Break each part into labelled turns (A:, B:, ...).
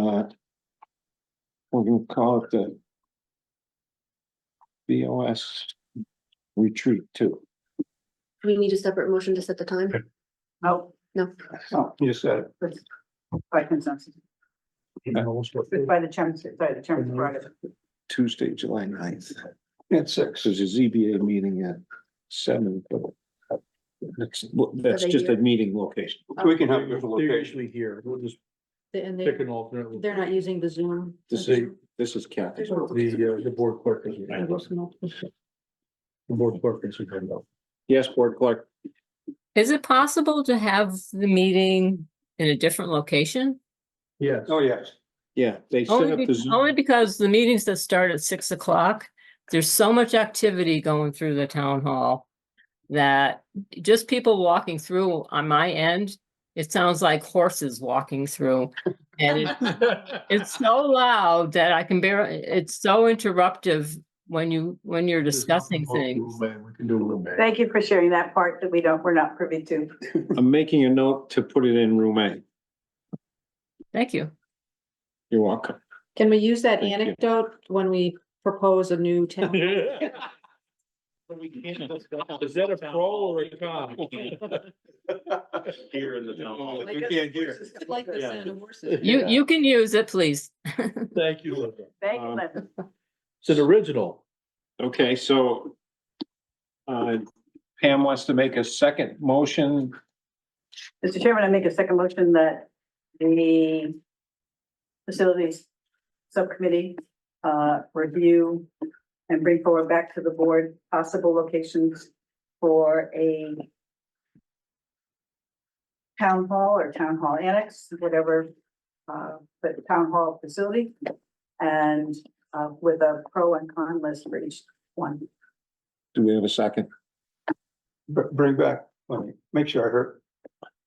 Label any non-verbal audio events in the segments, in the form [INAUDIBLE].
A: lot. We're gonna call it the. BOS retreat two.
B: Do we need a separate motion to set the time?
C: No,
B: No,
C: no,
A: Oh, You said, it.
C: but Oh, by consensus, It's by the chairman's, by the chairman's prerogative.
A: Tuesday, July 9th At six, there's a ZBA meeting at seven, but. That's, that's
B: they
A: just a
B: here?
A: meeting location.
B: We
A: can
D: They're usually here, we'll just
E: And
D: pick
E: they,
D: an alternate.
E: they're not using the Zoom.
A: This is, this is Kathy.
D: The, uh, the board clerk is. The board clerk is.
A: Yes, board clerk.
F: Is it possible to have the meeting in a different location?
D: Yes.
A: Oh,
D: [LAUGHS]
A: yes. Yeah, they set
F: Only
A: up
F: be-
A: the Zoom.
F: only because the meetings that start at six o'clock, there's so much activity going through the town hall that just people walking through on my end, it sounds like horses walking through. And it- it's so loud that I can bear, it's so interruptive when you, when you're discussing things.
D: Man, we can do a little
C: [LAUGHS]
D: bit.
C: Thank you for sharing that part that we don't, we're not privy to.
A: I'm making a note to put it in room A.
F: Thank you.
A: You're welcome. [LAUGHS]
E: Can we use that
A: Thank you.
E: anecdote when we propose a
A: [LAUGHS]
E: new town?
D: Is that a pro or a con?
G: Here in the town hall.
E: Like this- Like the sound
D: [LAUGHS]
E: of horses.
F: You, you can use it, please.
D: Thank you, Linda.
C: Thank you, Linda.
D: It's an original.
A: Okay, so uh, Pam wants to make a second motion.
C: Mr. Chairman, I make a second motion that the facilities subcommittee uh review and bring forward back to the board possible locations for a town hall or town hall annex, whatever, uh, but town hall facility and uh with a pro and con list for each one.
A: Do we have a second?
G: Bring back, let me make sure I heard,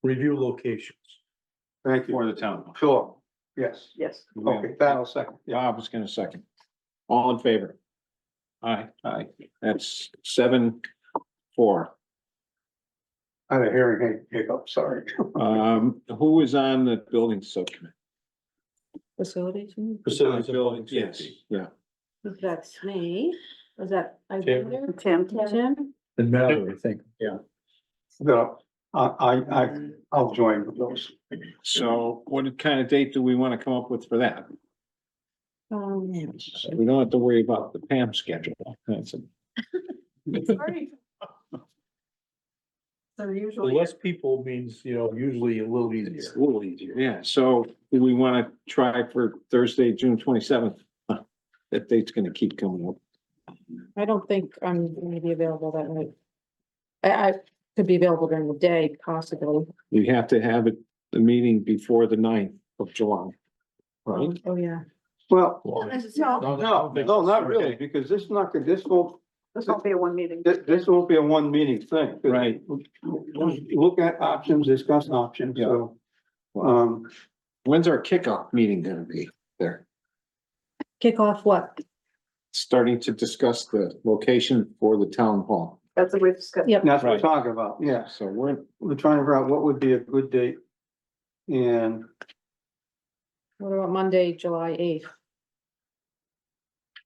D: Review locations.
G: thank you,
A: For the town.
G: sure, yes,
C: Yes.
G: okay, that'll second, yeah.
A: Bob is gonna second. All in favor? Aye, aye. That's seven, four.
G: I had a hearing hiccup, sorry. [LAUGHS]
A: Um, who is on the building subcommittee?
E: Facilities, hmm,
D: Facilities and public
A: Yes,
D: safety.
A: yeah.
E: that's me, was that? I was
D: Tim.
E: there?
C: Tim?
E: Tim?
D: And Mallory, I think.
G: The- uh, I, I, I, I'll join with those.
A: So what kind of date do we want to come up with for that?
E: Um,
A: We don't have to worry about the Pam schedule. That's it.
C: So
E: Oh,
C: usually.
D: Less people means, you know, usually a little easier.
A: It's a little easier, yeah, so do we wanna try for Thursday, June twenty-seventh? [LAUGHS] That date's gonna keep coming up.
E: I don't think I'm gonna be available that night. I, I could be available during the day possibly.
A: You have to have it, the meeting before the 9th of July. Right?
E: Oh, yeah.
G: Well,
D: Well,
B: necessarily.
D: no,
G: no, no, not really, because this is not, gonna- this won't,
C: This won't be a one meeting.
G: this, this won't be a one meeting thing.
A: Right.
G: Look at options, discuss options, so. Um,
A: When's our kickoff meeting gonna be there?
E: Kick off what?
A: Starting to discuss the location for the town hall.
C: That's what we've discussed.
E: Yep.
G: that's what we're
A: Right.
G: talking about, yes.
A: So we're,
G: we're trying to figure out what would be a good date. And
E: What about Monday, July eighth?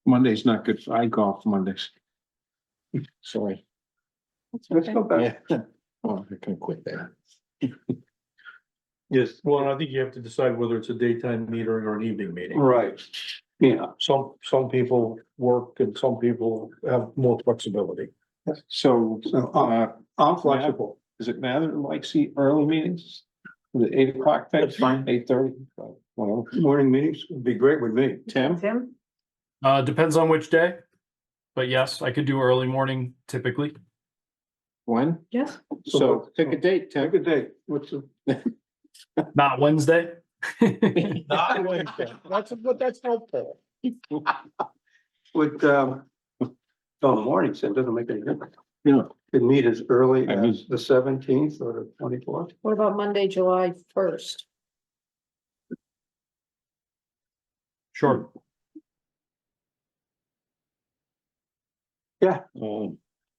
A: Monday's not good, I golf Mondays. [LAUGHS] Sorry.
G: let's go back,
A: Yeah. Oh, I can quit that.
D: Yes, well, and I think you have to decide whether it's a daytime meeting or an evening meeting.
G: right, yeah,
D: Some, some people work and some people have more flexibility.
A: So,
G: so I'm,
A: uh,
G: I'm flexible.
A: Does it matter, like, see early meetings? The eight o'clock thing?
D: That's fine.
A: Eight thirty? Well,
G: Morning meetings would be great with me.
A: Tim?
C: Tim?
H: Uh, depends on which day. But yes, I could do early morning typically.
A: When?
E: Yes.
A: So pick a date,
G: Have a
A: Tim.
G: good day. What's the?
H: Not Wednesday. [LAUGHS]
D: Not Wednesday. That's, but that's helpful.
G: Would, um, [LAUGHS] oh, morning, so it doesn't make any difference.
A: No.
G: Could meet as early
A: I mean-
G: as the seventeenth or the twenty-fourth.
E: What about Monday, July first?
H: Sure.
A: Um,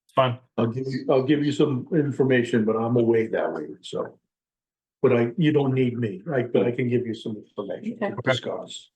H: It's fine.
D: I'll give you, I'll give you some information, but I'm away that week, so. But I, you don't need me, right? But I can give you some information
E: Okay.
D: to discuss.